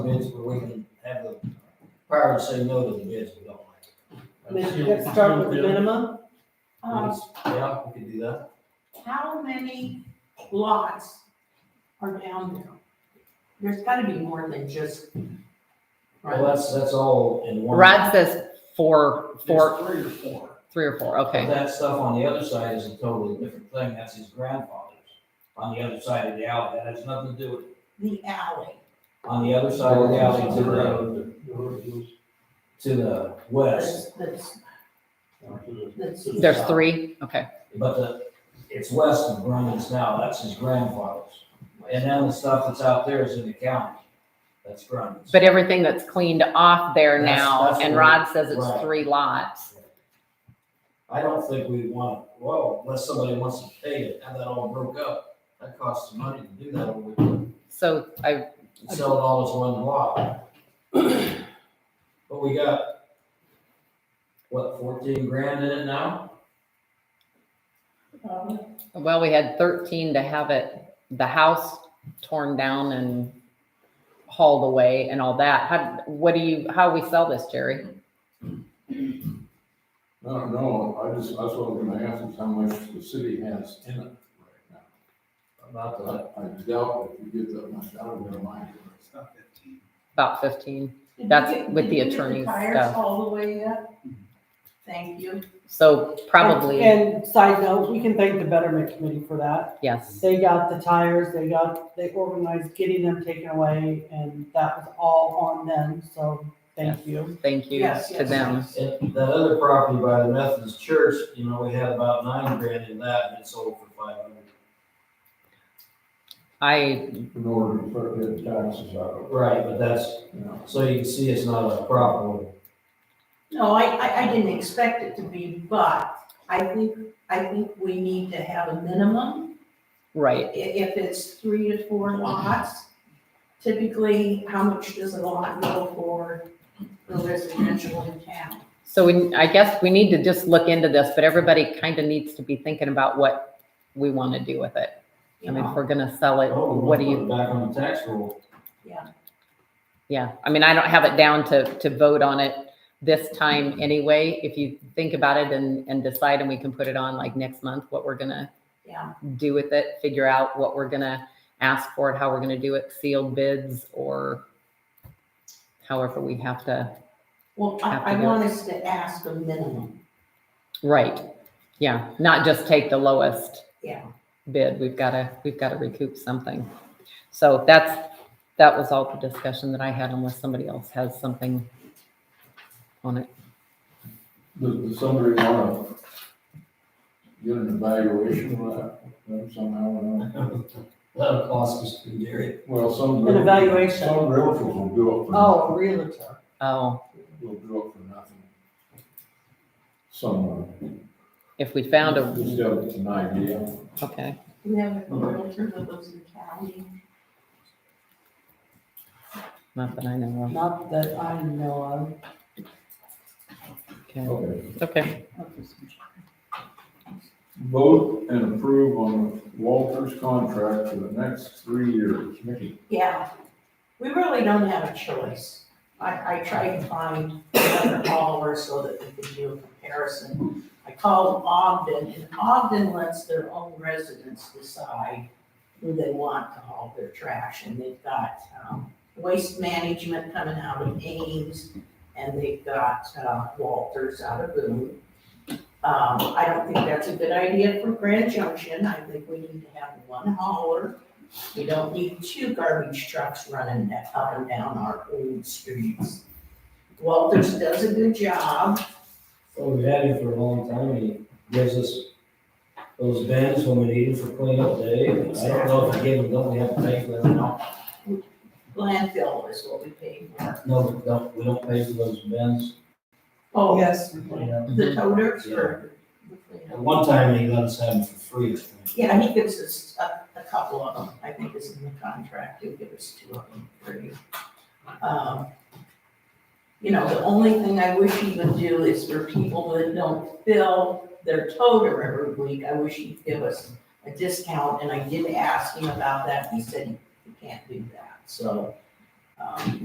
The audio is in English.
bids, but we can have the power to say no to the bids we don't like. I mean, uh-huh. let's start with the minimum, Um, Yeah, we could do that. how many lots are down there? There's gotta be more than just. Well, that's, that's all in one. Rod says four, four, There's Three or four. three or four, But okay. That stuff on the other side is a totally different thing. That's his grandfather's. On the other side of the alley, that has nothing to do with, The alley. on the other side of the alley to the, to the west. That's, that's, that's. There's three, okay. But the, it's west of Brennan's now, that's his grandfather's. And then the stuff that's out there is in the county, that's Brennan's. But everything that's cleaned off there That's- now, that's and what- Rod says right. it's three lots. I don't think we want, well, unless somebody wants to pay it, have that all broke up, that costs money to do that over the weekend. So I, Sell it all as one lot. But we got, what, fourteen grand in it now? Um, well, we had thirteen to have it, the house torn down and hauled away and all that. How, what do you, how we sell this, Jerry? No, no, I just, that's what I'm gonna ask is how much the city has in it right About the, now. I I doubt if you get that much out of their mind. It's not fifteen. About fifteen. did you That's get- with did the you get attorney's Tires stuff. all the way up? Thank you. So probably, And side note, we can thank the Betterment Committee for that. yes. They got the tires, they got, they organized getting them taken away, and that was all on them, so thank you. Thank you Yes, to yes, them. yes. and that other property by the Methodist church, you know, we had about nine grand in that, and it sold for five hundred. I, In order to put the taxes out Right, but that's, of, you know. so you can see it's not a problem. No, I, I, I didn't expect it to be, but I think, I think we need to have a minimum. right. i- if it's three to four lots, typically, how much does a lot go for the residential in town? So we, I guess we need to just look into this, but everybody kind of needs to be thinking about what we want to do with it. I You mean, if know, we're gonna sell it, Oh, we what do wanna put you, it Back on the tax roll. yeah, I mean, I don't have it down to, to vote on it this time anyway. If you think about it and, and decide and we can put it on like next month, what we're gonna yeah, do with it, figure out what we're gonna ask for it, how we're gonna do it, sealed bids or however we have to, well, I, I want us to ask a minimum, right, yeah, not just take the lowest. yeah. bid, we've got to, we've got to recoup something. So that's, that was all the discussion that I had unless somebody else has something on it. Does, does somebody wanna get an evaluation of that uh, somehow or another? That'll cost us, Gary. Well, some. An evaluation. Some realtors will do it for. Oh, realtor. Oh, Will do it for nothing. Some. uh, if we found a, Just got an idea. okay, We have Mm-hmm. a realtor that lives in county, not that I know Not that I know of. Okay, Okay. it's okay. Vote and approve on Walter's contract for the next three years. Mickey, yeah. We really don't have a choice. I, I tried to find another hauler so that we could do a comparison. I called Ogden, and Ogden lets their own residents decide who they want to haul their trash, and they've got, um, waste management coming out of Ames, and they've got, uh, Walters out of Boone. Um, I don't think that's a good idea for Grand Junction, I think we need to have one hauler. We don't need two garbage trucks running da- up and down our old streets. Walters does a good job, Well, Oh, we've had him for a long time, and he gives us those bins when we need them for cleanup day. I don't know if we give them, don't we have to pay for them now? landfill is what we pay for. No, we don't, we don't pay for those bins. of. Oh, Yes. the toters for the At cleanup. one time, they let us have them for free, I think. Yeah, he gives us a, a couple of them, I think is in the contract, he'll give us two of them free. Um, You know, the only thing I wish he would do is for people that don't fill their toter every week, I wish he'd give us a discount, and I did ask him about that, he said he can't do that, so. um,